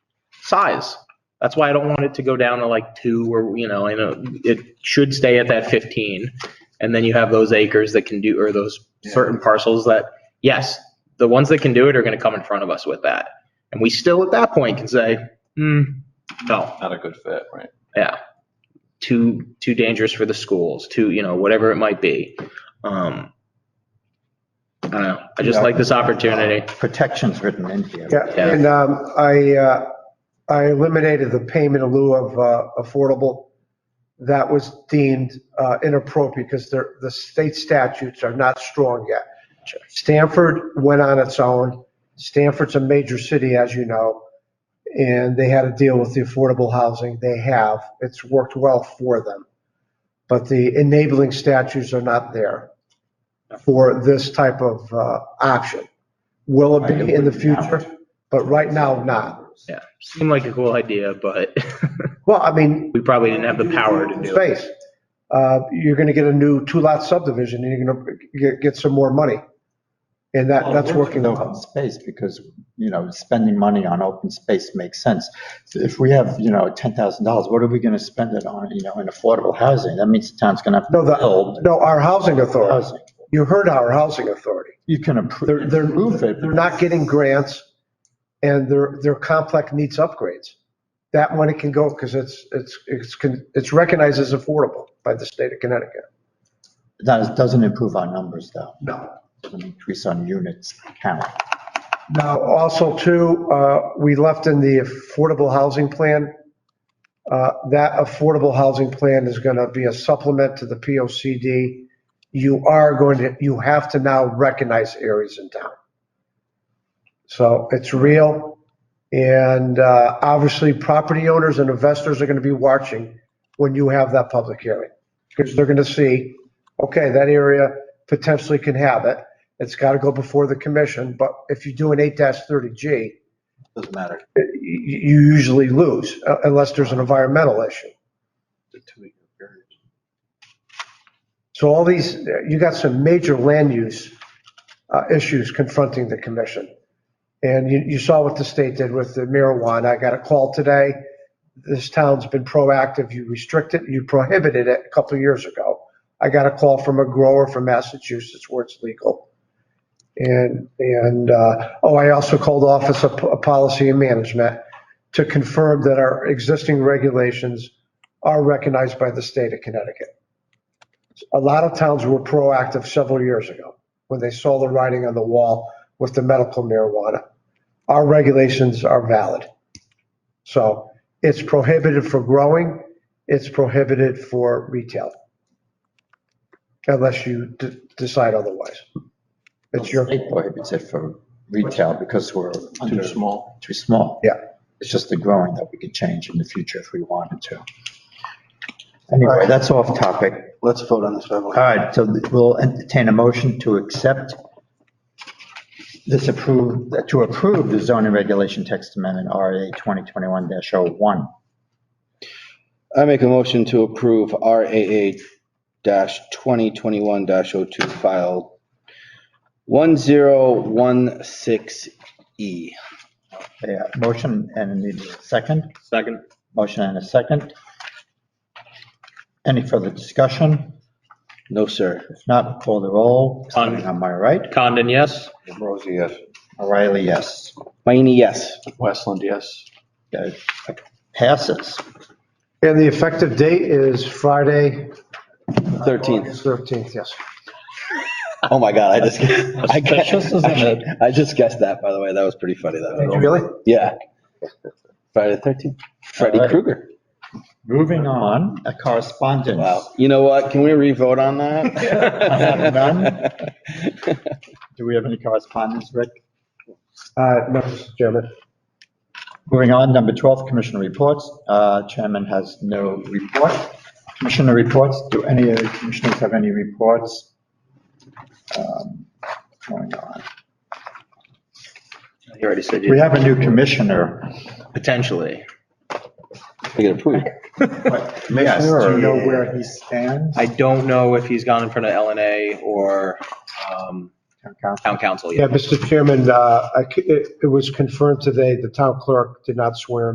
size. That's why I don't want it to go down to like two or, you know, I know it should stay at that 15. And then you have those acres that can do, or those certain parcels that, yes, the ones that can do it are going to come in front of us with that. And we still at that point can say, hmm, no, Not a good fit, right? yeah. Too, too dangerous for the schools, too, you know, whatever it might be. Um, I don't know. I just Yeah. like this opportunity. protections written in here. Yeah, Yeah. and um, I, uh, I eliminated the payment in lieu of uh, affordable. That was deemed uh, inappropriate because they're, the state statutes are not strong yet. Stanford went on its own. Stanford's a major city, as you know, and they had to deal with the affordable housing they have. It's worked well for them. But the enabling statutes are not there for this type of uh, option. Will it be in the future? But right now, not. Yeah. Seemed like a cool idea, but Well, I mean, we probably didn't have the power to do it. space. Uh, You're going to get a new two-lot subdivision, and you're going to get, get some more money. And that, that's working Open out. space, because, you know, spending money on open space makes sense. If we have, you know, ten thousand dollars, what are we gonna spend it on, you know, in affordable housing? That means the town's gonna have to No, the, build no, our housing authority, housing. you heard our housing authority. You can They're, improve, they're, improve it. they're not getting grants, and their, their complex needs upgrades. That money can go, because it's, it's, it's, con- it's recognized as affordable by the state of Connecticut. That doesn't improve our numbers, though. No. Doesn't increase on units count. Now, also too, uh, we left in the affordable housing plan. uh, That affordable housing plan is going to be a supplement to the P O C D. You are going to, you have to now recognize areas in town. So it's real. And uh, obviously, property owners and investors are going to be watching when you have that public hearing. Because they're going to see, okay, that area potentially can have it. It's got to go before the commission, but if you do an eight thirty G, Doesn't matter. you, you usually lose uh, unless there's an environmental issue. So all these, you got some major land use uh, issues confronting the commission. And you, you saw what the state did with the marijuana. I got a call today. This town's been proactive. You restrict it, you prohibited it a couple of years ago. I got a call from a grower from Massachusetts where it's legal. And, and, uh, oh, I also called Office of P- Policy and Management to confirm that our existing regulations are recognized by the state of Connecticut. A lot of towns were proactive several years ago when they saw the writing on the wall with the medical marijuana. Our regulations are valid. So it's prohibited for growing, it's prohibited for retail. Unless you d- decide otherwise. It's your. State prohibits it for retail because we're under- Too small. Too small. Yeah. It's just the growing that we could change in the future if we wanted to. Anyway, that's off topic. Let's vote on this, by the All right, so we'll entertain a motion to accept this approved, to approve the zoning regulation text amendment RA 2021-01. I make a motion to approve RAA dash twenty twenty-one dash oh two file one zero one six E. Yeah, uh, motion and a need a second, Second. motion and a second. Any further discussion? No, sir. If not, call the roll. Starting on my right, Condon, yes? Rosie, yes. O'Reilly, yes. Mayini, yes. Westland, yes. Okay, Passes. And the effective date is Friday. Thirteenth. August 13th, yes. Oh, my God, I just, I guessed, I just guessed that, by the way. That was pretty funny, though. Really? Yeah. Friday the thirteenth. Freddy All right. Krueger. Moving on, a correspondence. Wow. You know what? Can we re-vote on that? Do we have any correspondence, Rick? Uh, No, Mr. Chairman. Moving on, number 12, commissioner reports. Uh, Chairman has no report. Commissioner reports, do any of the commissioners have any reports? Um, Going on. You already said We have a new commissioner. Potentially. We get approved. Yes, do Commissioner or- you know where he stands? I don't know if he's gone in front of LNA or um, Town council. town council yet. Yeah, Mr. Chairman, uh, I c- it it was confirmed today, the town clerk did not swear